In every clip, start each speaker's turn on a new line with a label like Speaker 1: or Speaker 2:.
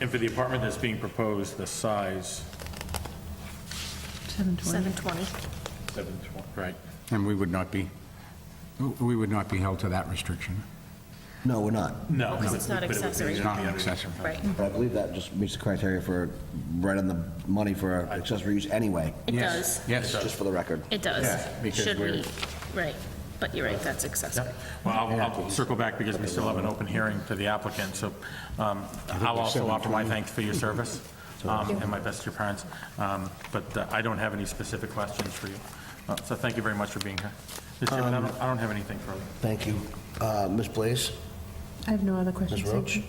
Speaker 1: And for the apartment that's being proposed, the size,
Speaker 2: 720.
Speaker 3: 720.
Speaker 1: 720, right?
Speaker 4: And we would not be, we would not be held to that restriction.
Speaker 5: No, we're not.
Speaker 1: No.
Speaker 3: Because it's not
Speaker 1: but it would be-
Speaker 3: accessory.
Speaker 4: It's not an accessory.
Speaker 3: Right.
Speaker 5: But I believe that just meets the criteria for right on the money for accessory use anyway,
Speaker 3: It
Speaker 4: Yes,
Speaker 3: does.
Speaker 4: Yes,
Speaker 5: just for the record.
Speaker 3: It does.
Speaker 1: Yeah, because
Speaker 3: Should we?
Speaker 1: we're-
Speaker 3: Right. But you're right, that's accessory.
Speaker 1: Yep. Well, I'll- I'll circle back because we still have an open hearing to the applicant, so um, I'll also offer my thanks for your service um, and my best to your parents, Um, but uh, I don't have any specific questions for you. Uh, So thank you very much for being here. Mr. Chairman, I don't- I don't have anything further.
Speaker 5: Thank you. Uh, Ms. Blaze,
Speaker 2: I have no other
Speaker 5: Ms.
Speaker 2: questions. thank
Speaker 5: Roach?
Speaker 2: you.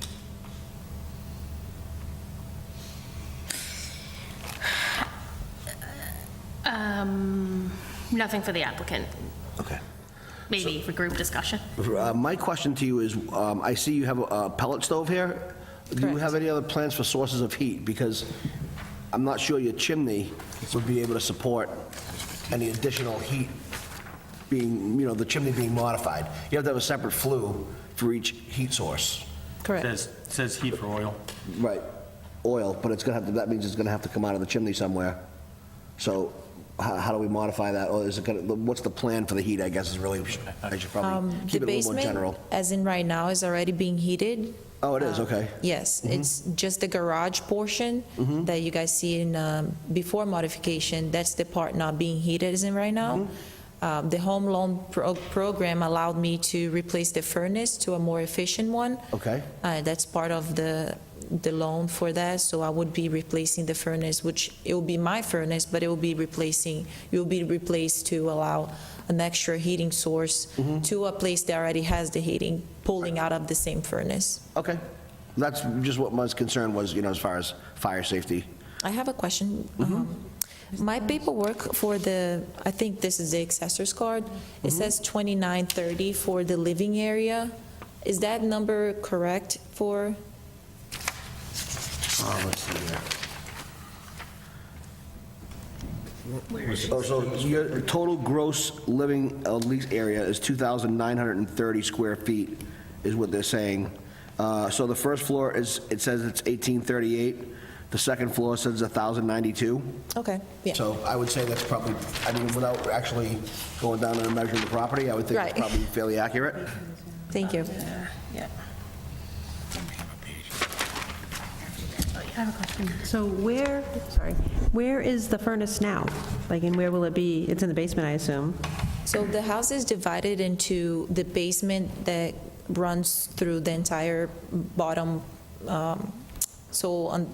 Speaker 3: Um, Nothing for the applicant,
Speaker 5: Okay.
Speaker 3: maybe for group discussion.
Speaker 5: Uh, My question to you is, um, I see you have a pellet stove here. Do you
Speaker 2: Correct.
Speaker 5: have any other plans for sources of heat? Because I'm not sure your chimney would be able to support any additional heat being, you know, the chimney being modified. You have to have a separate flue for each heat source.
Speaker 2: Correct.
Speaker 1: Says says heat for oil.
Speaker 5: Right. Oil, but it's gonna have to, that means it's gonna have to come out of the chimney somewhere. So how, how do we modify that? Or is it gonna, what's the plan for the heat, I guess, is really, I should probably
Speaker 6: Um, The
Speaker 5: Um, keep it a little more
Speaker 6: basement,
Speaker 5: general.
Speaker 6: as in right now, is already being heated. Um,
Speaker 5: Oh, it
Speaker 6: Uh,
Speaker 5: is, okay. Mm-hmm.
Speaker 6: Yes, it's just the garage portion that you guys see in, um, before modification, that's the part not being heated as in right now.
Speaker 5: Mm-hmm.
Speaker 6: Um, The home loan pro- program allowed me to replace the furnace to a more efficient one.
Speaker 5: Okay.
Speaker 6: Uh, That's part of the, the loan for that, so I would be replacing the furnace, which it will be my furnace, but it will be replacing, it will be replaced to allow an extra heating source to a place that already has the heating, pulling out of the same furnace.
Speaker 5: Okay. That's just what my concern was, you know, as far as fire safety.
Speaker 6: I have a question. Um, My paperwork for the, I think this is the accessories card, it says 2930 for the living area. Is that number correct for,
Speaker 5: Oh, let's see here. Oh, so your total gross living uh, lease area is 2,930 square feet, is what they're saying. Uh, So the first floor is, it says it's 1838, the second floor says 1,092.
Speaker 6: okay, yeah,
Speaker 5: So I would say that's probably, I mean, without actually going down and measuring the property, I would think it's
Speaker 6: Right.
Speaker 5: probably fairly accurate.
Speaker 6: thank you.
Speaker 3: Yeah.
Speaker 2: So where, sorry, where is the furnace now? Like, and where will it be? It's in the basement, I assume.
Speaker 6: So the house is divided into the basement that runs through the entire bottom, um, so on,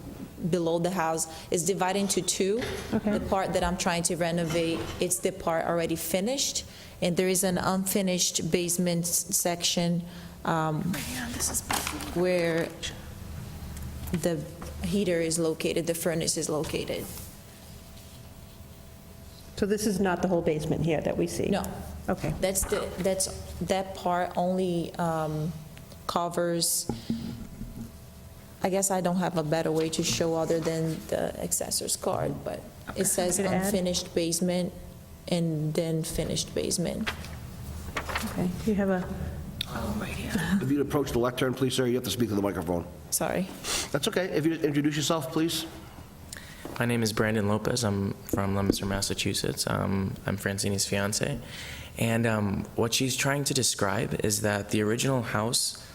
Speaker 6: below the house, is divided into two.
Speaker 2: Okay.
Speaker 6: The part that I'm trying to renovate, it's the part already finished, and there is an unfinished basement s- section um, where the heater is located, the furnace is located.
Speaker 2: So this is not the whole basement here that we see?
Speaker 6: No.
Speaker 2: Okay.
Speaker 6: That's the, that's, that part only um, covers, I guess I don't have a better way to show other than the accessor's card, but it says
Speaker 2: Could add.
Speaker 6: unfinished basement and then finished basement.
Speaker 2: Okay. Do you have a,
Speaker 5: If you'd approach the lectern, please, sir, you have to speak to the microphone.
Speaker 6: Sorry.
Speaker 5: That's okay. If you introduce yourself, please.
Speaker 7: My name is Brandon Lopez. I'm from Leominster, Massachusetts. Um, I'm Francine's fiance. And um, what she's trying to describe is that the original house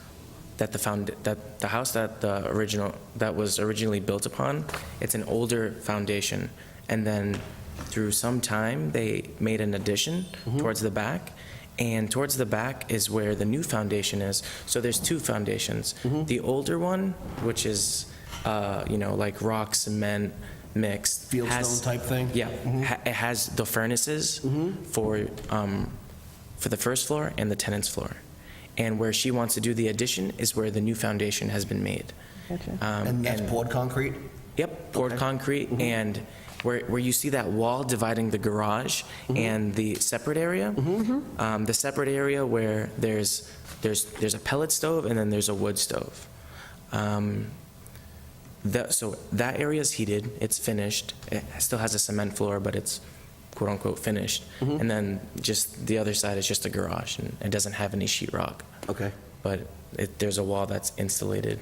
Speaker 7: that the found that the house that the original that was originally built upon, it's an older foundation. And then through some time they made an addition
Speaker 5: Mm-hmm.
Speaker 7: towards the back. And towards the back is where the new foundation is. So there's two foundations.
Speaker 5: Mm-hmm.
Speaker 7: The older one, which is uh, you know, like rock, cement mixed.
Speaker 5: Fieldstone
Speaker 7: has-
Speaker 5: type thing? Mm-hmm.
Speaker 7: Yeah. ha- It has the furnaces for, um, for the first floor and the tenant's floor. And where she wants to do the addition is where the new foundation has been made. Um,
Speaker 5: And that's poured concrete?
Speaker 7: Yep, poured concrete, and where, where you see that wall dividing the garage and the separate area, um, the separate area where there's, there's, there's a pellet stove and then there's a wood stove. Um, That, so that area is heated, it's finished, it still has a cement floor, but it's quote-unquote finished. And then just, the other side is just a garage, and it doesn't have any sheetrock.
Speaker 5: Okay.
Speaker 7: But it, there's a wall that's insulated